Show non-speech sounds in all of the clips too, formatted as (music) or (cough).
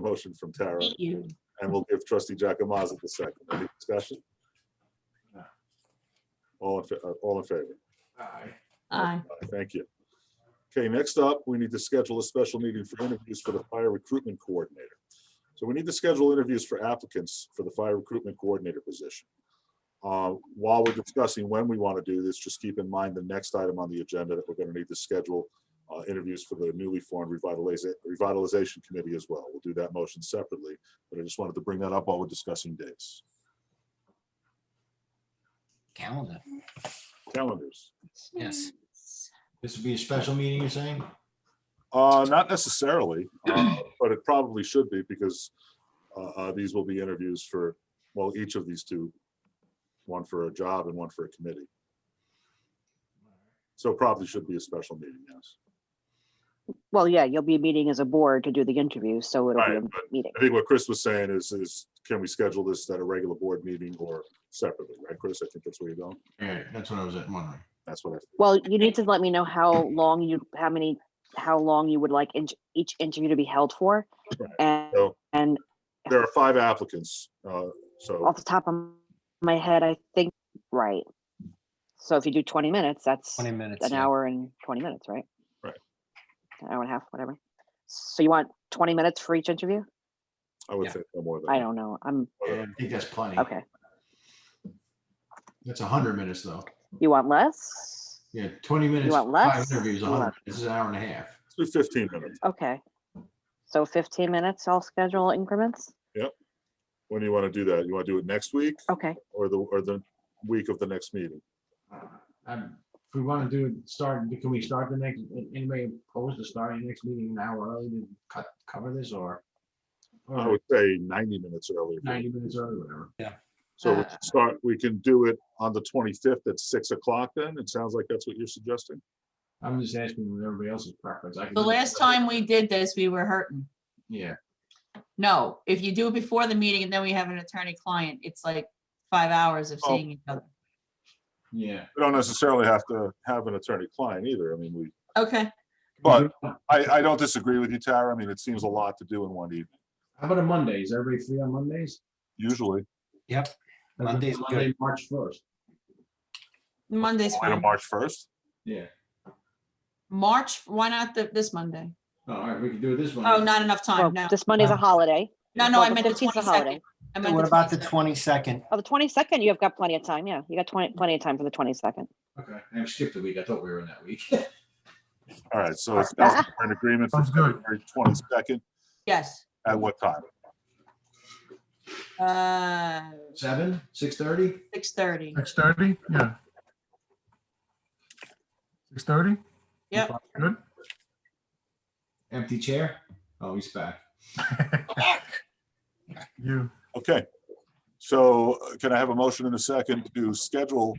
motion from Tara, Thank you. and we'll give trustee Jacomaza the second. Any discussion? All in, fa- uh, all in favor? Aye. Aye. Aye, Thank you. Okay, next up, we need to schedule a special meeting for interviews for the fire recruitment coordinator. So we need to schedule interviews for applicants for the fire recruitment coordinator position. Uh, While we're discussing when we want to do this, just keep in mind the next item on the agenda that we're going to need to schedule uh, interviews for the newly formed revitaliza- revitalization committee as well. We'll do that motion separately, but I just wanted to bring that up while we're discussing dates. Calendar, Calendars. yes. This would be a special meeting, you're saying? Uh, not necessarily, (clears throat) uh, but it probably should be because uh, uh, these will be interviews for, well, each of these two. One for a job and one for a committee. So probably should be a special meeting, yes. Well, yeah, you'll be meeting as a board to do the interview, so it'll be Right, a but meeting. I think what Chris was saying is, is can we schedule this at a regular board meeting or separately, right, Chris? I think that's where you're going. Yeah, that's what I was wondering. That's what I, Well, you need to let me know how long you, how many, how long you would like each- each interview to be held for. Right. And, So- and there are five applicants, uh, so, off the top of my head, I think, right. So if you do twenty minutes, that's 20 minutes. an yeah. hour and twenty minutes, right? Right. An hour and a half, whatever. So you want twenty minutes for each interview? I would Yeah. think no more than. I don't know. I'm, I think that's plenty. okay. That's a hundred minutes though. You want less? Yeah, twenty minutes, want five less? interviews, a You hundred. want- This is an hour and a half. Let's do Fifteen minutes. Okay. So fifteen minutes, I'll schedule increments? When do you want to do that? You want to do it next week Okay, or the, or the week of the next meeting? Um, if we want to do, start, can we start the next, anybody opposed to starting the next meeting an hour early to cut, cover this or? I Or would say ninety minutes earlier. ninety minutes early, whatever. So we can start, we can do it on the twenty-fifth at six o'clock then? It sounds like that's what you're suggesting. I'm just asking what everybody else's preference. I can The do- last time we did this, we were hurting. Yeah, No, if you do it before the meeting and then we have an attorney-client, it's like five hours of Oh. seeing each other. yeah. We don't necessarily have to have an attorney-client either. I mean, we, Okay, but I, I don't disagree with you, Tara. I mean, it seems a lot to do in one evening, How about a Monday? Is everybody free on Mondays? usually. Yep, Monday's good. Monday, March first. Monday's Wait till fine. March first? Yeah. March, why not the- this Monday? Oh, All right, we can do it this one. Oh, not enough well, time, no. this Monday's a Um, holiday. No, no, well, I the meant the 15th is a twenty-second. holiday. I meant what about the 22nd. twenty-second? Oh, the twenty-second, you have got plenty of time, yeah, you got twenty, plenty of time for the twenty-second. Okay, I skipped a week. I thought we were in that week. (laughs) All right, so it's sounds like we're in agreement for Sounds good. February twenty-second. Yes. At what time? Uh, Seven, six thirty? six (laughs) thirty. Six thirty, yeah. Six thirty? Yep. Good. Empty chair? Oh, he's back. You, Okay. So uh, can I have a motion in a second to schedule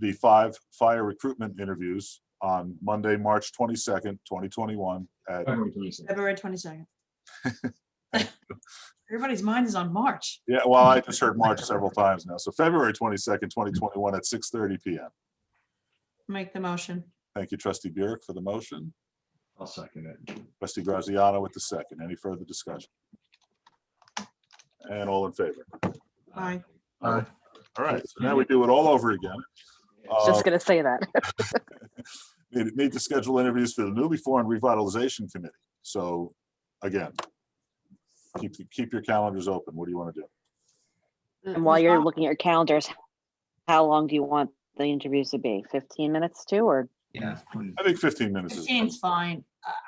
the five fire recruitment interviews on Monday, March twenty-second, twenty twenty-one at February twenty-sixth. February (laughs) twenty-second. (laughs) Everybody's mind is on March. Yeah, well, I just heard March several times now. So February twenty-second, twenty twenty-one at six thirty PM. Make the motion. Thank you, trustee Burek for the motion, I'll second it. trustee Graziano with the second. Any further discussion? And all in favor. Aye. uh, All right, so now we do it all over again. Uh, Just gonna say that. Need need to schedule interviews for the newly formed revitalization committee. So again, keep, keep your calendars open. What do you want to do? And while you're looking at your calendars, how long do you want the interviews to be? Fifteen minutes too, or Yeah, I think fifteen minutes is, Fifteen's fine. I-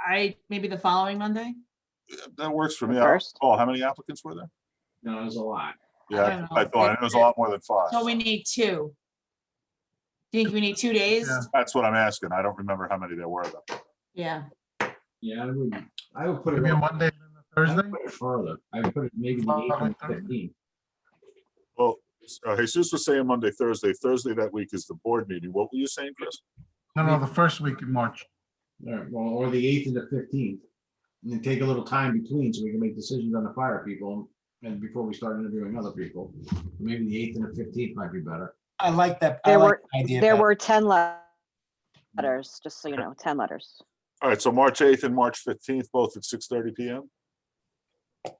I, maybe the following Monday? that works for The me. I- first? Paul, how many applicants were there? No, there's a lot. I Yeah, don't I know. thought, it was a lot more than five. So we need two. Do you Think we need two days? Yeah. That's what I'm asking. I don't remember how many there were. though. Yeah, Yeah, I would, I would put it. maybe a Monday, and I a would Thursday? put it Further. I would put it maybe the eighth and the fifteenth. Well, uh, Jesus was saying Monday, Thursday. Thursday that week is the board meeting. What were you saying, Chris? No, no, the first week in March. All right, well, or the eighth and the fifteenth. And then take a little time between so we can make decisions on the fire people and before we start interviewing other people. Maybe the eighth and the fifteenth might be better. I like that. I There like were- the idea there better. were ten le- letters, just so you know, ten letters. All right, so March 8th and March 15th, both at 6:30 PM?